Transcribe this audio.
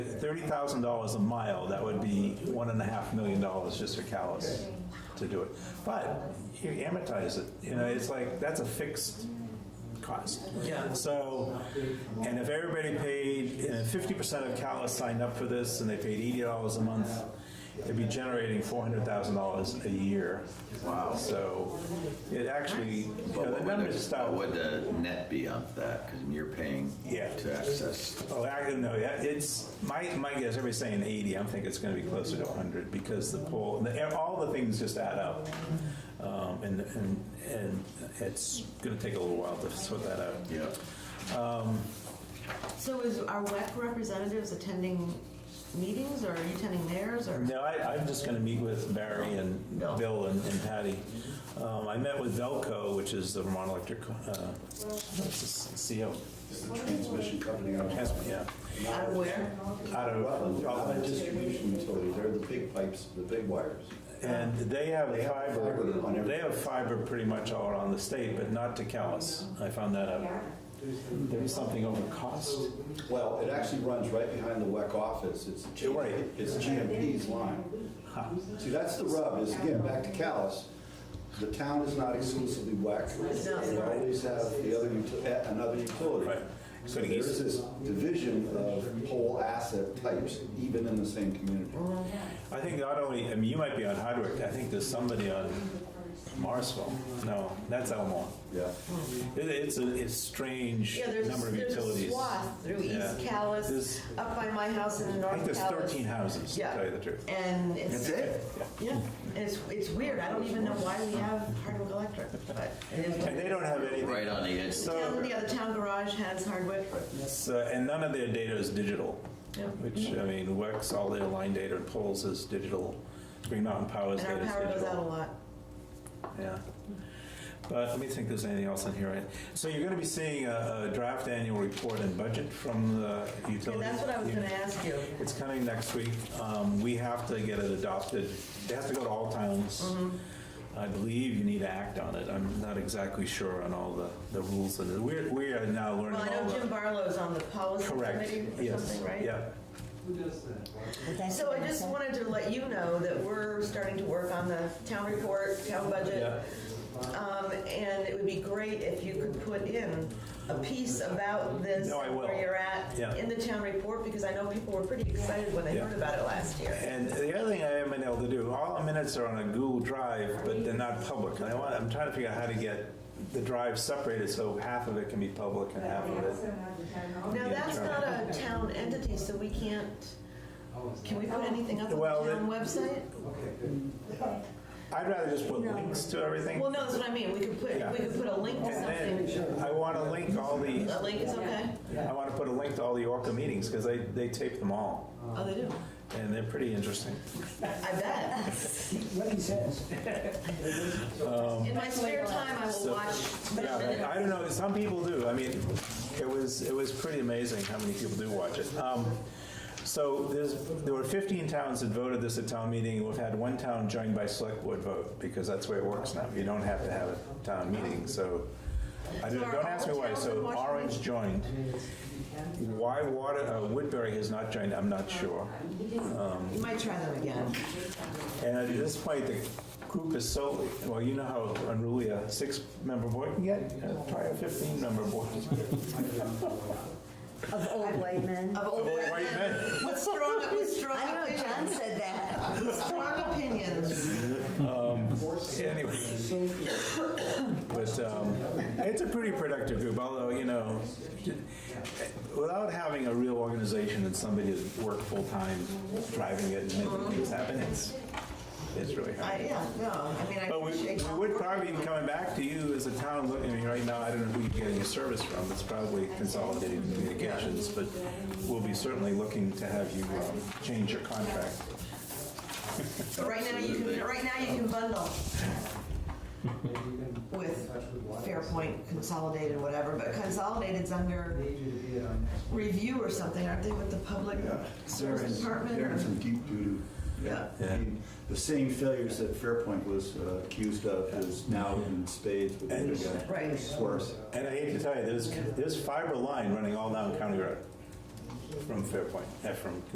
thirty thousand dollars a mile, that would be one and a half million dollars just for callus to do it. But you amortize it, you know, it's like, that's a fixed cost. Yeah. So, and if everybody paid, and fifty percent of callus signed up for this and they paid eighty dollars a month, they'd be generating four hundred thousand dollars a year. Wow. So it actually, you But know, what the would numbers the- start. what would the net be off that? Because you're paying Yeah. to access. Oh, I don't know. Yeah, It's my my guess. Everybody's saying 80. I'm thinking it's going to be closer to 100 because the poll, the, all the things just add up, um, and and and it's going to take a little while to sort that out. Yeah. So is our WEC representatives attending meetings or are you attending theirs or? No, I, I'm just going to meet with Barry and No. Bill and, and Patty. Um, I met with Velco, which is the Vermont Electric uh, it's the CO. It's the transmission company out of Transfer, Yeah. Out of where? Out of Rutland, Rutland Distribution Utility, they're the big pipes, the big wires. And they have They have fiber, fiber on every- they have fiber pretty much all around the state, but not to Callis. I found that out. There was something over cost. Well, it actually runs right behind the WEC office, it's, You're right. it's GMP's line. See, that's the rub, is again, back to Callis, the town is not exclusively WEC. They always have the other, uti- eh, another utility. Right. So there's this division of pole asset types, even in the same community. I think not only, I mean, you might be on Hardwick, I think there's somebody on Marsville. No, that's Elmore. Yeah. It, it's a, it's strange Yeah, there's, number of there's a utilities. I swath through Yeah. East There's- Callis, up by my house in think North there's thirteen Callis. houses, to Yeah. tell you the truth. And it's, it? yeah, and it's, it's weird. I don't even know why we have Hardwick Electric, but it is. And they don't have anything, Right on the edge. So- Town, the other town garage has Hardwick. so- and none of their data is digital, Yeah. which, I mean, WEX, all their line data and polls is digital. Green Mountain Power's And data our is digital. power goes out a lot. Yeah. But let me think if there's anything else on here. So you're going to be seeing a a draft annual report and budget from the Yeah, utility. that's what I was gonna ask you. It's coming next week. Um, We have to get it adopted. It has to go to all towns. Mm-hmm. I believe you need to act on it. I'm not exactly sure on all the, the rules. and the- We're, we are now learning Well, I all know Jim the. Barlow's on the policy Correct, committee or yes. something, right? Yeah. So I just wanted to let you know that we're starting to work on the town report, town budget. Um, and it would be great if you could put in a piece about this. No, I will. Where you're at Yeah. in the town report, because I know people were pretty excited when they Yeah. heard about it last year. And the other thing I haven't been able to do, all the minutes are on a Google Drive, but they're not public. And I want, I'm trying to figure out how to get the drive separated so half of it can be public and half of it. Now, Yeah, that's sure. not a town entity, so we can't, can we put anything up on Well, the it- town website? I'd rather just put links to everything. Well, no, that's what I mean, we could put, Yeah. we could put a link to And something. then I want to link all the, A link is okay? I want to put a link to all the Orca meetings because they, they tape them all. Oh, they do? And they're pretty interesting. I bet. What he says. In my spare time, I will watch. Um, Yeah, I don't know, some people do. I mean, it was, it was pretty amazing how many people do watch it. Um, So there's, there were 15 towns that voted this at town meeting. We've had one town joined by select board vote because that's the way it works now. You don't have to have a town meeting, so. I So don't, are don't ask me all why. towns in So Washington? Orange joined. Why Water, uh, Woodbury has not joined, I'm not sure. You might try them again. And at this point, the group is so, well, you know how unruly a six-member board can get? Uh, Try a 15-member board. Of old white men. Of old Well, white men. With strong, with strong I don't know, John opinions. said that. With strong opinions. Anyway. But um, it's a pretty productive group, although, you know, without having a real organization and somebody that's worked full-time driving it and making things happen, it's, it's really hard. I, yeah, no, I mean, I But we, appreciate. we would probably be coming back to you as a town, look- I mean, right now, I don't know who you're getting your service from, it's probably Consolidated Communications, but we'll be certainly looking to have you um, change your contract. But right now, you can, right now, you can bundle. With Fairpoint Consolidated, whatever, but Consolidated's under review or something, aren't they, with the public service department? They're in some deep doo-doo. Yeah. I mean, The same failures that Fairpoint was uh, accused of is now in spades with the other guy. Right. It's worse. And I hate to tell you, there's, there's fiber line running all down County Road from Fairpoint, eh, from